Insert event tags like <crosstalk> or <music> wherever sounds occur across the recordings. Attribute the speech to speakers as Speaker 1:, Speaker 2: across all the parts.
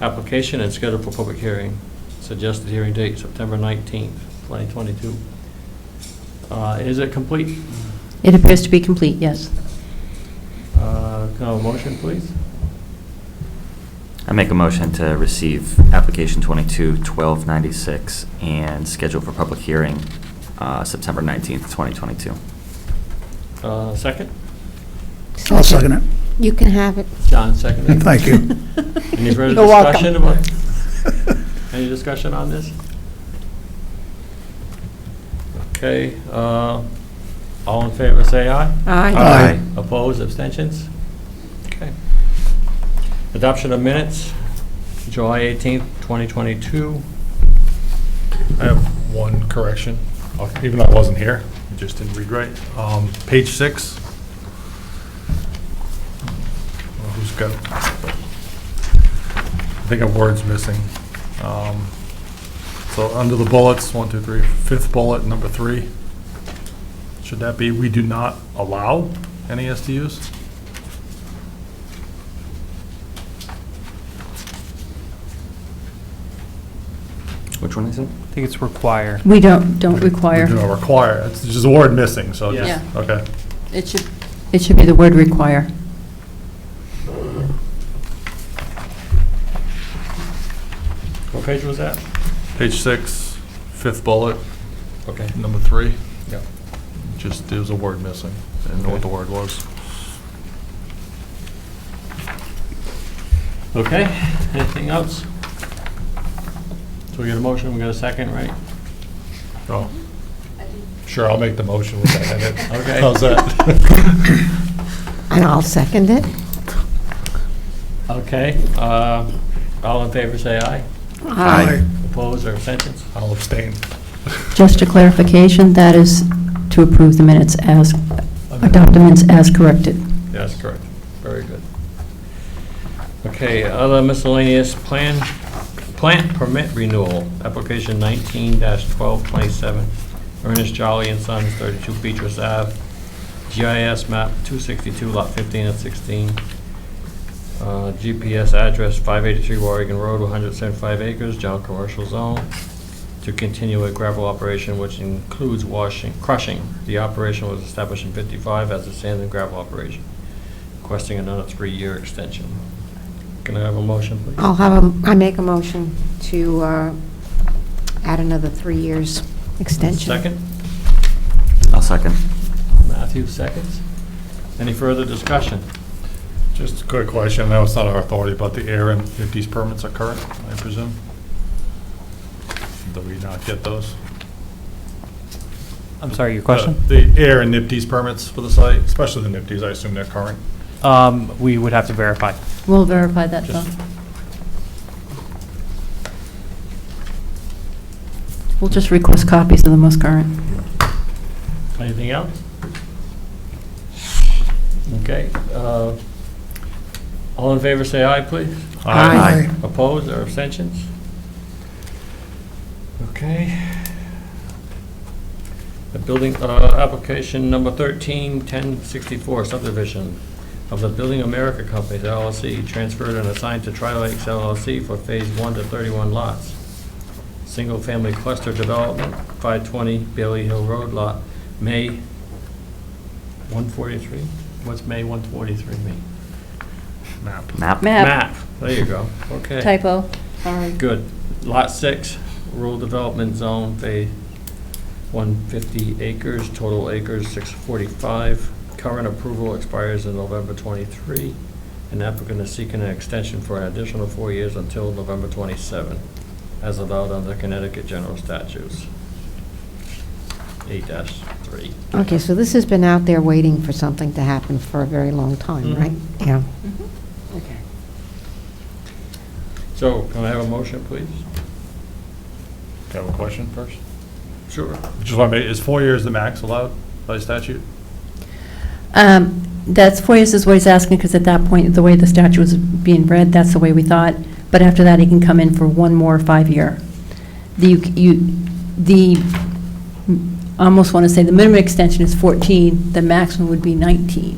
Speaker 1: application and scheduled for public hearing. Suggested hearing date, September 19th, 2022. Uh, Is it complete?
Speaker 2: It appears to be complete, yes.
Speaker 1: Uh, Can I have a motion, please?
Speaker 3: I make a motion to receive application 22-1296 and schedule for public hearing uh, September 19th, 2022.
Speaker 1: Uh, Second?
Speaker 4: I'll second it.
Speaker 5: You can have it.
Speaker 1: John, seconded.
Speaker 4: Thank you.
Speaker 1: <laughs> Any further
Speaker 5: You're welcome.
Speaker 1: discussion about, any discussion on this? Okay, uh, all in favor, say aye.
Speaker 4: Aye.
Speaker 1: Opposed, abstentions? Okay. Adoption of minutes, July 18th, 2022.
Speaker 6: I have one correction, Uh, even though I wasn't here, I just didn't read right. Um, Page six. Well, Who's got, I think a word's missing. Um, So under the bullets, one, two, three, fifth bullet, number three, should that be, we do not allow any SDUs?
Speaker 3: Which one is it?
Speaker 7: I think it's require.
Speaker 2: We don't, don't
Speaker 6: We do
Speaker 2: require.
Speaker 6: not require, it's just a word missing, so
Speaker 1: Yeah.
Speaker 6: just, okay.
Speaker 2: It should, it should be the word require.
Speaker 1: What page was that?
Speaker 6: Page six, fifth bullet,
Speaker 1: Okay.
Speaker 6: number three.
Speaker 1: Yeah.
Speaker 6: Just, there was a word missing. I didn't know what the word was.
Speaker 1: Okay, anything else? So we get a motion, we got a second, right?
Speaker 6: Oh. Sure, I'll make the motion with that in it.
Speaker 1: Okay.
Speaker 6: How's that?
Speaker 5: And I'll second it.
Speaker 1: Okay, uh, all in favor, say aye.
Speaker 5: Aye.
Speaker 1: Opposed or abstentions?
Speaker 6: I'll abstain.
Speaker 2: Just a clarification, that is to approve the minutes as, adopt the minutes as corrected.
Speaker 1: Yes, correct. Very good. Okay, other miscellaneous plan, plant permit renewal, application nineteen twelve twenty-seven, Ernest Jolly and Sons, thirty-two Beatrice Ave, GIS map two sixty-two, lot fifteen and sixteen, uh, GPS address five eighty-three Oregon Road, one hundred seventy-five acres, general commercial zone, to continue a gravel operation which includes washing, crushing. The operation was established in fifty-five as a sand and gravel operation, requesting another three-year extension. Can I have a motion, please?
Speaker 5: I'll have a, I make a motion to uh, add another three years extension.
Speaker 1: Second?
Speaker 3: I'll second.
Speaker 1: Matthew, seconds. Any further discussion?
Speaker 6: Just a quick question, I know it's not our authority, but the air and, if these permits are current, I presume? Do we not get those?
Speaker 7: I'm sorry, your question?
Speaker 6: The the air and NIPD's permits for the site, especially the NIPD's, I assume they're current.
Speaker 7: Um, we would have to verify.
Speaker 2: We'll verify that, though.
Speaker 6: Just-
Speaker 2: We'll just request copies of the most current.
Speaker 1: Anything else? Okay, uh, all in favor, say aye, please.
Speaker 5: Aye.
Speaker 1: Opposed or abstentions? Okay. The building, uh, application number 13, 1064 subdivision of the Building America Company LLC, transferred and assigned to Tri-Lakes LLC for Phase 1 to 31 lots. Single-family cluster development, 520 Bailey Hill Road Lot, May 143? What's May 143 mean?
Speaker 6: Map.
Speaker 3: Map?
Speaker 1: Map, there you go, okay.
Speaker 2: Typo, sorry.
Speaker 1: Good. Lot six, rural development zone, phase one fifty acres, total acres six forty-five. Current approval expires in November twenty-three. An applicant is seeking an extension for an additional four years until November twenty-seven, as allowed under Connecticut General Statutes. Eight dash three.
Speaker 5: Okay, so this has been out there waiting for something to happen for a very long time,
Speaker 1: Mhm.
Speaker 5: right? Yeah. Okay.
Speaker 1: So can I have a motion, please?
Speaker 6: Do you have a question first?
Speaker 1: Sure.
Speaker 6: Just want to make, is four years the max allowed by statute?
Speaker 2: Um, That's, four years is what he's asking, because at that point, the way the statute was being read, that's the way we thought. But after that, he can come in for one more five-year. The, you, the, I almost want to say, the minimum extension is 14, the maximum would be 19.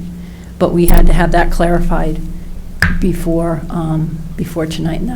Speaker 2: But we had to have that clarified before, um, before tonight, and that's